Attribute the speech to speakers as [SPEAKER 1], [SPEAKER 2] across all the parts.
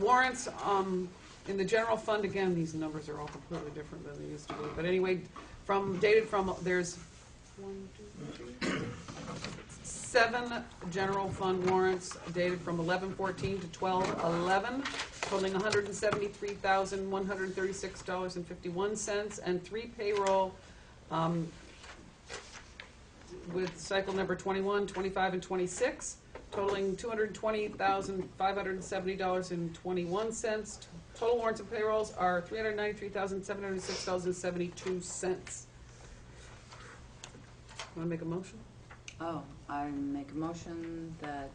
[SPEAKER 1] warrants, um, in the general fund, again, these numbers are all completely different than they used to be, but anyway, from, dated from, there's one, two, three, seven general fund warrants dated from eleven fourteen to twelve eleven, totaling hundred and seventy-three thousand, one hundred and thirty-six dollars and fifty-one cents, and three payroll, um, with cycle number 21, 25, and 26, totaling $220,570.21. Total warrants and payrolls are $393,706.72. Want to make a motion?
[SPEAKER 2] Oh, I make a motion that,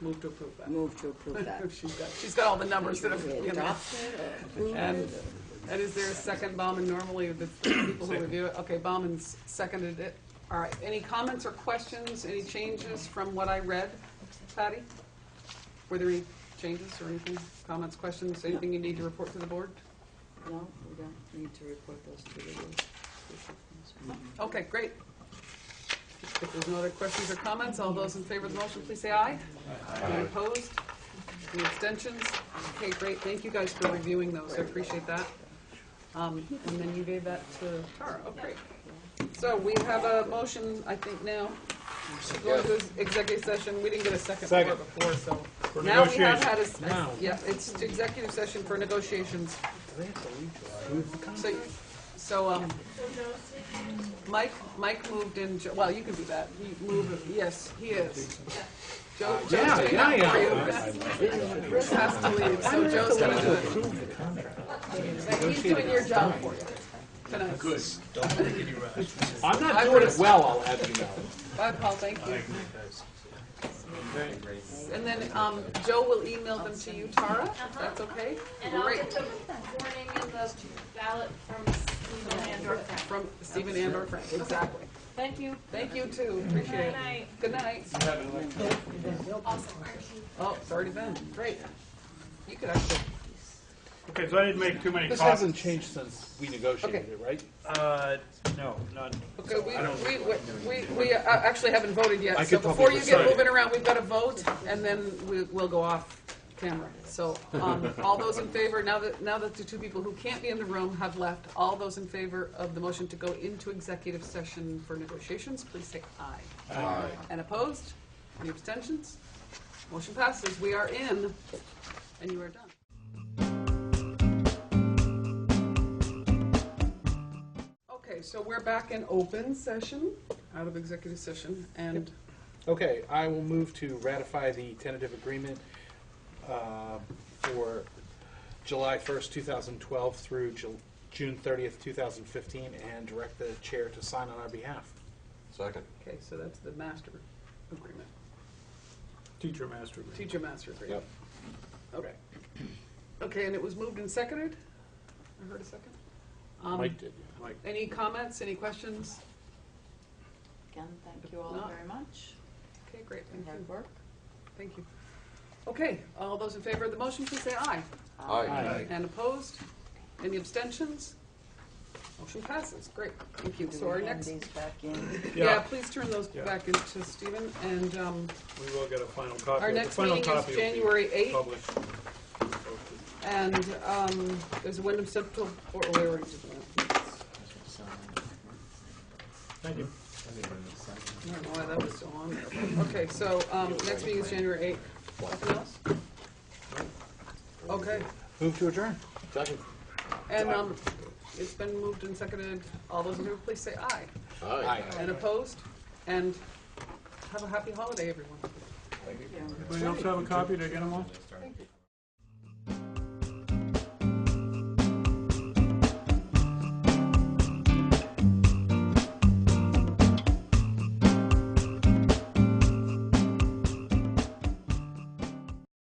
[SPEAKER 1] Move to approve that.
[SPEAKER 2] move to approve that.
[SPEAKER 1] She's got, she's got all the numbers that have,
[SPEAKER 2] We
[SPEAKER 1] you know.
[SPEAKER 2] adopt it or approve
[SPEAKER 1] And-
[SPEAKER 2] it
[SPEAKER 1] And is there a second, Bauman, normally the people who review it? Okay, Bauman's seconded it. All right, any comments or questions, any changes from what I read, Patty? Were there any changes or anything, comments, questions, anything you need to report to the board?
[SPEAKER 2] or- No, we don't need to report those to the rules.
[SPEAKER 1] Okay, great. If there's no other questions or comments, all those in favor of the motion, please say aye. Any opposed? Any abstentions? Okay, great, thank you guys for reviewing those, I appreciate that. Um, And then you gave that to Tara, oh, great. So we have a motion, I think, now, to go into executive session, we didn't get a second for it
[SPEAKER 3] Second.
[SPEAKER 1] before, so.
[SPEAKER 3] For
[SPEAKER 1] Now we have
[SPEAKER 3] negotiations.
[SPEAKER 1] had a, s-
[SPEAKER 3] Now.
[SPEAKER 1] yeah, it's to executive session for negotiations. So, so, um, Mike, Mike moved in, Jo- well, you can do that, he moved, yes, he is. Joe, Joe's
[SPEAKER 3] yeah,
[SPEAKER 1] doing
[SPEAKER 3] yeah,
[SPEAKER 1] that for
[SPEAKER 3] yeah.
[SPEAKER 1] you. Chris has to leave, so Joe's gonna do it. Like, He's doing your job for you tonight. I
[SPEAKER 3] I'm not doing
[SPEAKER 1] would've-
[SPEAKER 3] it well, I'll have you know.
[SPEAKER 1] Bye, Paul, thank you. And then, um, Joe will email them to you, Tara, if that's okay?
[SPEAKER 4] And I'll
[SPEAKER 1] Great,
[SPEAKER 4] get the warning and the ballot from Stephen Andor.
[SPEAKER 1] from Stephen Andor Frank, exactly.
[SPEAKER 4] Thank you.
[SPEAKER 1] Thank you too, appreciate it.
[SPEAKER 4] night.
[SPEAKER 1] Good night.
[SPEAKER 4] Awesome, aren't you?
[SPEAKER 1] Oh, it's already been, great. You could actually,
[SPEAKER 5] Okay, so I didn't make too many
[SPEAKER 3] This
[SPEAKER 5] copies.
[SPEAKER 3] hasn't changed since we negotiated
[SPEAKER 1] Okay.
[SPEAKER 3] it, right?
[SPEAKER 5] Uh, no, not,
[SPEAKER 1] okay, we, we, we, we, we uh, actually haven't voted
[SPEAKER 3] I
[SPEAKER 1] yet, so
[SPEAKER 3] could
[SPEAKER 1] before you
[SPEAKER 3] probably
[SPEAKER 1] get
[SPEAKER 3] decide.
[SPEAKER 1] moving around, we've got to vote, and then we, we'll go off camera. So, um, all those in favor, now that, now that the two people who can't be in the room have left, all those in favor of the motion to go into executive session for negotiations, please say aye. Aye. And opposed? Any abstentions? Motion passes, we are in, and you are done. Okay, so we're back in open session, out of executive session, and
[SPEAKER 3] Okay, I will move to ratify the tentative agreement uh, for July 1st, 2012 through Ju- June 30th, 2015, and direct the chair to sign on our behalf.
[SPEAKER 6] Second.
[SPEAKER 1] Okay, so that's the master agreement,
[SPEAKER 5] teacher master. me.
[SPEAKER 1] teacher master agreement. Okay. Okay, and it was moved and seconded? I heard a second? Um,
[SPEAKER 3] Mike did.
[SPEAKER 5] Like,
[SPEAKER 1] Any comments, any questions?
[SPEAKER 2] Again, thank you all very much.
[SPEAKER 1] Okay, great, thank you,
[SPEAKER 2] Hard work.
[SPEAKER 1] thank you. Okay, all those in favor of the motion, please say aye.
[SPEAKER 5] Uh,
[SPEAKER 3] Aye.
[SPEAKER 1] And opposed? Any abstentions? Motion passes, great, thank you.
[SPEAKER 2] Do
[SPEAKER 1] So our
[SPEAKER 2] we hand
[SPEAKER 1] next,
[SPEAKER 2] these back in?
[SPEAKER 1] yeah,
[SPEAKER 5] Yeah.
[SPEAKER 1] please turn those
[SPEAKER 5] Yeah.
[SPEAKER 1] back into Stephen, and, um,
[SPEAKER 5] we will get a final copy.
[SPEAKER 1] Our
[SPEAKER 5] The
[SPEAKER 1] next
[SPEAKER 5] final
[SPEAKER 1] meeting is
[SPEAKER 5] copy will be
[SPEAKER 1] January 8th.
[SPEAKER 5] Published.
[SPEAKER 1] and, um, there's a Wyndham Central, or, oh, we already did that.
[SPEAKER 5] Thank you.
[SPEAKER 1] I don't know why that was so long ago. Okay, so, um, next meeting is January eighth. Nothing else? Okay,
[SPEAKER 3] Move to adjourn.
[SPEAKER 6] Second.
[SPEAKER 1] and, um, it's been moved and seconded. All those in favor, please say aye.
[SPEAKER 3] Aye.
[SPEAKER 1] And opposed? And have a happy holiday, everyone.
[SPEAKER 2] Thank you.
[SPEAKER 5] Anybody else have a copy to get them all?